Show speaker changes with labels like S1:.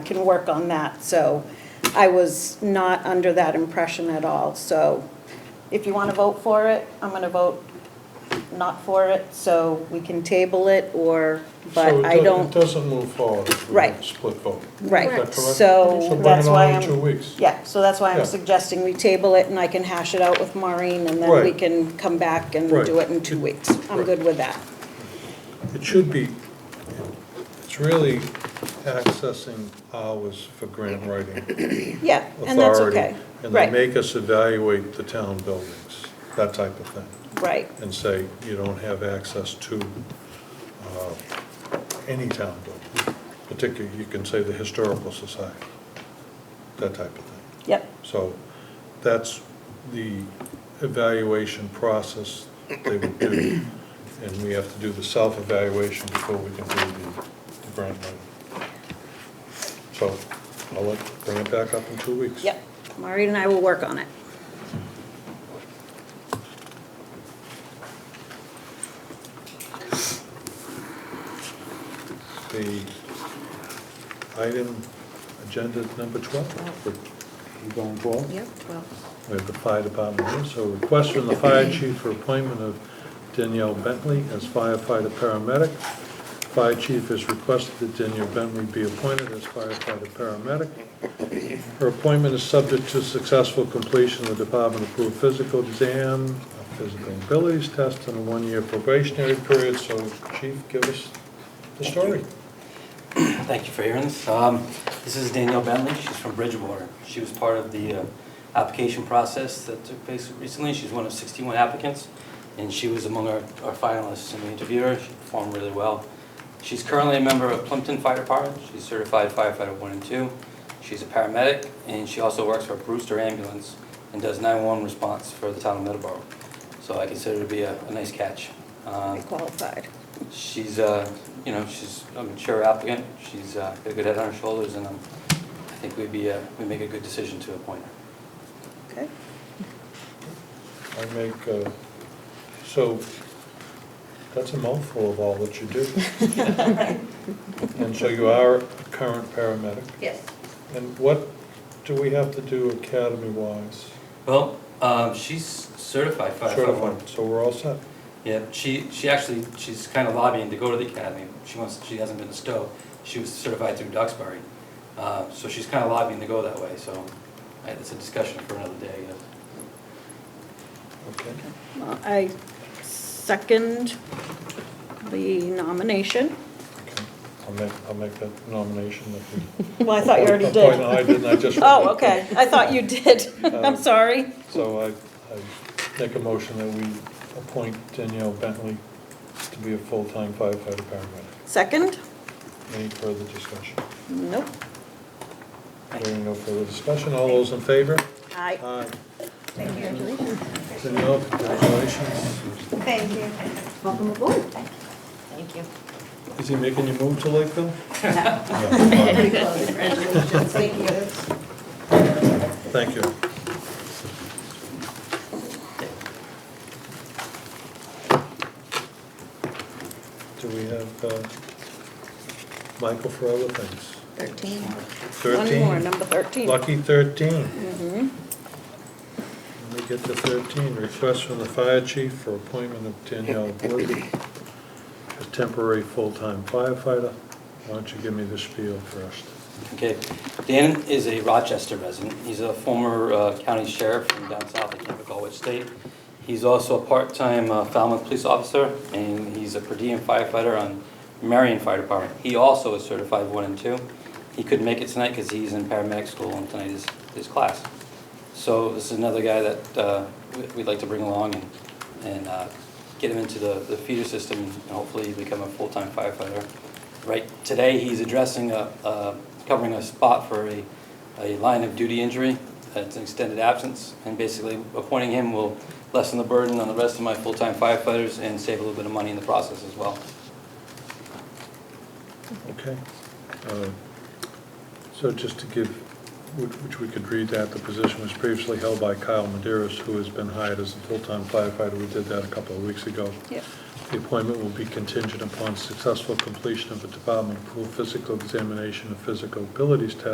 S1: can work on that, so I was not under that impression at all, so if you want to vote for it, I'm going to vote not for it, so we can table it, or,
S2: So
S1: but
S2: it
S1: I
S2: do- It
S1: don't,
S2: doesn't move forward. if we
S1: Right.
S2: have a Split vote. Is
S1: right,
S2: that correct?
S1: so
S2: bring
S1: that's
S2: it on
S1: why
S2: in
S1: I'm.
S2: Two weeks.
S1: Yeah, so that's why
S2: Yeah.
S1: I'm suggesting we table it, and I can hash it out with Maureen, and then we
S2: Right.
S1: can come back and
S2: Right.
S1: do it in two weeks. I'm
S2: Right.
S1: good with that.
S2: It should be, it's really accessing hours for grant writing
S1: Yeah, and that's
S2: authority.
S1: okay.
S2: And they
S1: Right,
S2: make us evaluate the town buildings, that type of thing,
S1: right,
S2: and say, you don't have access to uh, any town building. Particularly, you can say the historical society, that type of thing.
S1: yep,
S2: So that's the evaluation process they would do, and we have to do the self-evaluation before we can do the the grant writing. So I'll let- bring it back up in two weeks.
S1: yep. Maureen and I will work on it.
S2: The item, agenda number 12, we're going forward.
S3: Yep, well,
S2: We have the fire department here, so request from the fire chief for appointment of Danielle Bentley as firefighter paramedic. Fire chief has requested that Danielle Bentley be appointed as firefighter paramedic. Her appointment is subject to successful completion of the department-approved physical exam, a physical abilities test, and a one-year probationary period, so chief, give us the story.
S4: Thank you for hearing this. Um, This is Danielle Bentley, she's from Bridgewater. She was part of the uh, application process that took place recently. She's one of 61 applicants, and she was among our our finalists in the interview. She performed really well. She's currently a member of Plimpton Fire Department, she's certified firefighter one and two. She's a paramedic, and she also works for Brewster Ambulance and does 911 response for the town of Middleborough. So I consider her to be a a nice catch. Um,
S2: Uh,
S1: I qualified.
S4: She's, uh, you know, she's a mature applicant, she's uh, got a good head on her shoulders, and um, I think we'd be, uh, we'd make a good decision to appoint her.
S1: Okay.
S2: I make, uh, so, that's a mouthful of all that you do. And so you are a current paramedic,
S1: Yes.
S2: and what do we have to do academy-wise?
S4: Well, um, she's certified
S2: Certified, so we're all set.
S4: Yeah, she, she actually, she's kind of lobbying to go to the academy. She wants, she hasn't been to Stowe. She was certified through Duxbury. Uh, So she's kind of lobbying to go that way, so uh, it's a discussion for another day, uh. I guess.
S2: Okay.
S1: Well, I second the nomination.
S2: Okay. I'll make, I'll make that nomination if we.
S1: Well, I thought you already
S2: Oh, no,
S1: did.
S2: I didn't, I just.
S1: Oh, okay, I thought you did.
S2: Um,
S1: I'm sorry.
S2: So I, I make a motion that we appoint Danielle Bentley to be a full-time firefighter paramedic.
S1: Second?
S2: Any further discussion?
S1: Nope.
S2: Hearing no further discussion, all those in favor?
S1: Aye.
S2: Aye.
S3: congratulations.
S2: Danielle, congratulations.
S5: Thank you.
S3: Welcome aboard.
S5: Thank you.
S2: Is he making you move to Lakeville?
S3: Pretty close. Congratulations.
S5: Thank you.
S2: Thank you. Do we have uh, Michael for other things?
S1: 13. One more,
S2: Thirteen,
S1: number 13.
S2: lucky thirteen. Let me get to thirteen, request from the fire chief for appointment of Danielle Wood as temporary full-time firefighter. Why don't you give me the spiel first?
S4: Okay, Dan is a Rochester resident. He's a former uh, county sheriff from down south, I can't recall which state. He's also a part-time uh, Falmouth police officer, and he's a per diem firefighter on Marion Fire Department. He also is certified one and two. He couldn't make it tonight because he's in paramedic school, and tonight is his class. So this is another guy that uh, we- we'd like to bring along and and uh, get him into the the feeder system and hopefully become a full-time firefighter. Right, today, he's addressing, a- a- covering a spot for a a line of duty injury. It's an extended absence, and basically appointing him will lessen the burden on the rest of my full-time firefighters and save a little bit of money in the process as well.
S2: Okay. Uh, So just to give, which which we could read that, the position was previously held by Kyle Maderas, who has been hired as a full-time firefighter. We did that a couple of weeks ago.
S1: Yep.
S2: The appointment will be contingent upon successful completion of a department-approved physical examination and physical abilities test